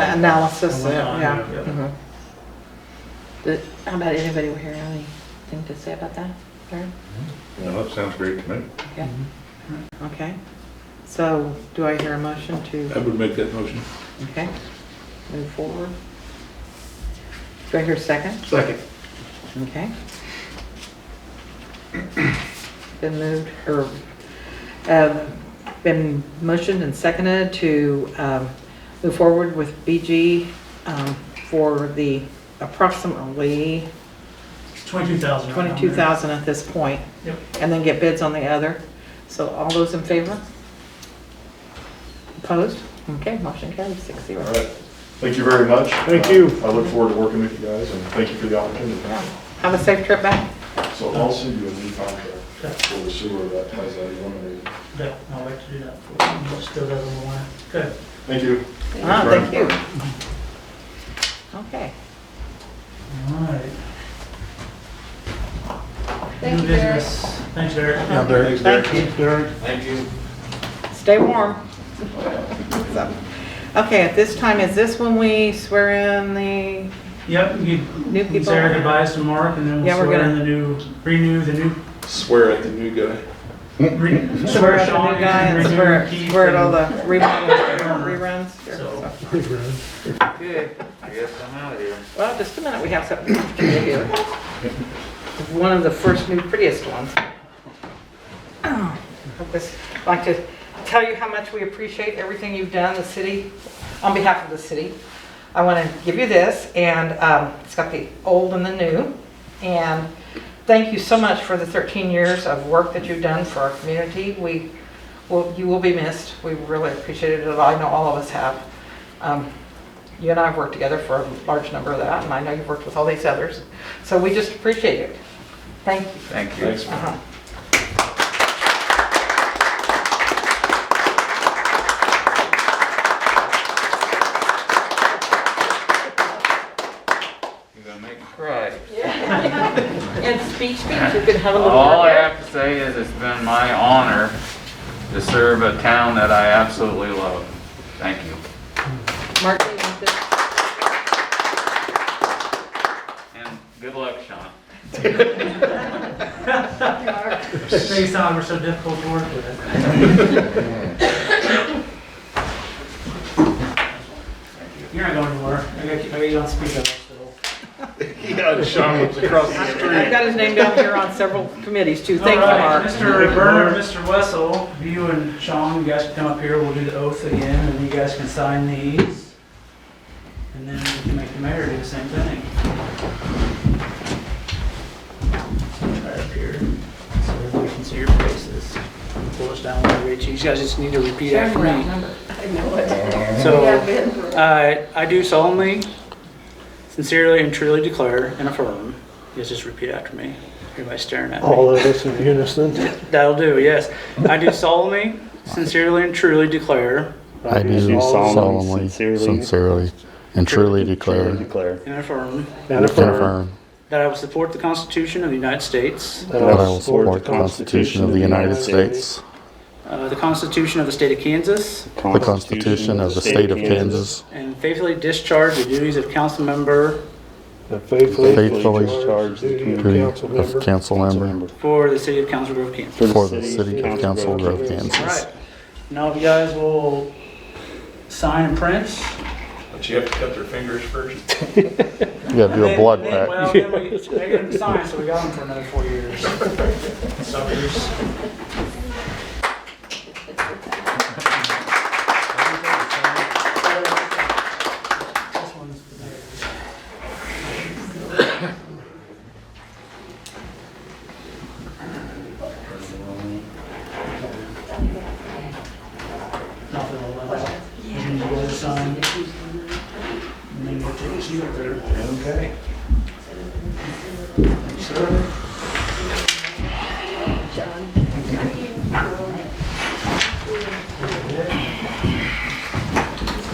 that analysis, Went on, yeah. yeah. mhm. Did- How about anybody over here, have anything to say about that? Karen? No, that sounds great to me. Okay. Okay, so do I hear a motion I to, would make that motion. okay, move forward? Do I hear a second? Second. Okay. Been moved, or, um, been motioned and seconded to um, move forward with BG um, for the approximately Twenty-two thousand. 22,000 at this point, Yep. and then get bids on the other. So all those in favor? Opposed? Okay, motion carries six All zero. right. Thank you very much. Thank Uh, you. I look forward to working with you guys and thank you for the opportunity. Yeah. Have a safe trip back. So I'll send you a new contract for the sewer that has that eliminated. Yeah, I'll wait to do that for you. Still doesn't want to. Good. Thank you. Ah, thank you. Okay. All right. Thank New you, Derek. business. Thanks, Eric. Thanks, Thank you. Stay warm. So, Okay, at this time, is this when we swear in the, Yep, you New can people. say our goodbyes to Mark and then Yeah, we'll we're swear gonna- in the new, renew the new, Swear at the new guy. re- swear swear at the Sean new guy and and renew swear, Keith swear at all and- the reruns? reruns? So- Good, I guess I'm out of here. Well, just a minute, we have something to do here. One of the first new prettiest ones. I'd just like to tell you how much we appreciate everything you've done, the city, on behalf of the city. I want to give you this, and um, it's got the old and the new. And thank you so much for the 13 years of work that you've done for our community. We, will- you will be missed. We really appreciate it. I know all of us have. Um, you and I have worked together for a large number of that, and I know you've worked with all these others. So we just appreciate it. Thank you. Thank you. Thanks. Uh-huh. You're gonna make me cry. And speech, speech, you can have a little. All I have to say is it's been my honor to serve a town that I absolutely love. Thank you. Mark, do you want this? And good luck, Sean. Thanks, Tom, we're so difficult to work with. You're not going anywhere. I got, I got you on speaker still. Yeah, Sean was across the I've got his name down here on several committees too. Thank you, All right, Mark. Mr. Bernard, Mr. Wessel, you and Sean, you guys can come up here, we'll do the oath again, and you guys can sign these. And then we can make the mayor do the same thing. Right up here, so everybody can see your faces. Pull us down a little bit, you guys just need to repeat after me. So, uh, I do solemnly, sincerely, and truly declare and affirm, you guys just repeat after me, everybody's staring at me. all of us in unison. That'll do, yes. I do solemnly, sincerely, and truly declare I do solemnly, sincerely, and truly declare declare and affirm and and affirm affirm that I will support the Constitution of the United States, that that I will support the Constitution of the United States, uh, the Constitution of the State of Kansas, the Constitution of the State of Kansas, and faithfully discharge the duties of council member and faithfully faithfully discharge the duty of duty council of member council member for the city of Council Grove, Kansas. for the City of Council Grove, All Kansas. right. Now, if you guys will sign and print. But you have to cut their fingers first. You gotta do a Then- blood then- pact. Well, then we, they didn't sign, so we got them for another four years. Suckers. This one's for there. Nothing will let out. And you go to sign. And then we'll take you up there. Okay. Sir,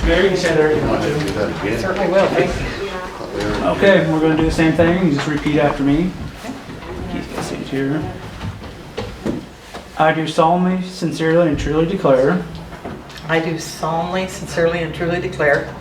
Mayor, you can say there if you want to. Certainly will, thank you. Okay, we're gonna do the same thing, you just repeat after me. Keith, can sit here. I do solemnly, sincerely, and truly declare I do solemnly, sincerely, and truly declare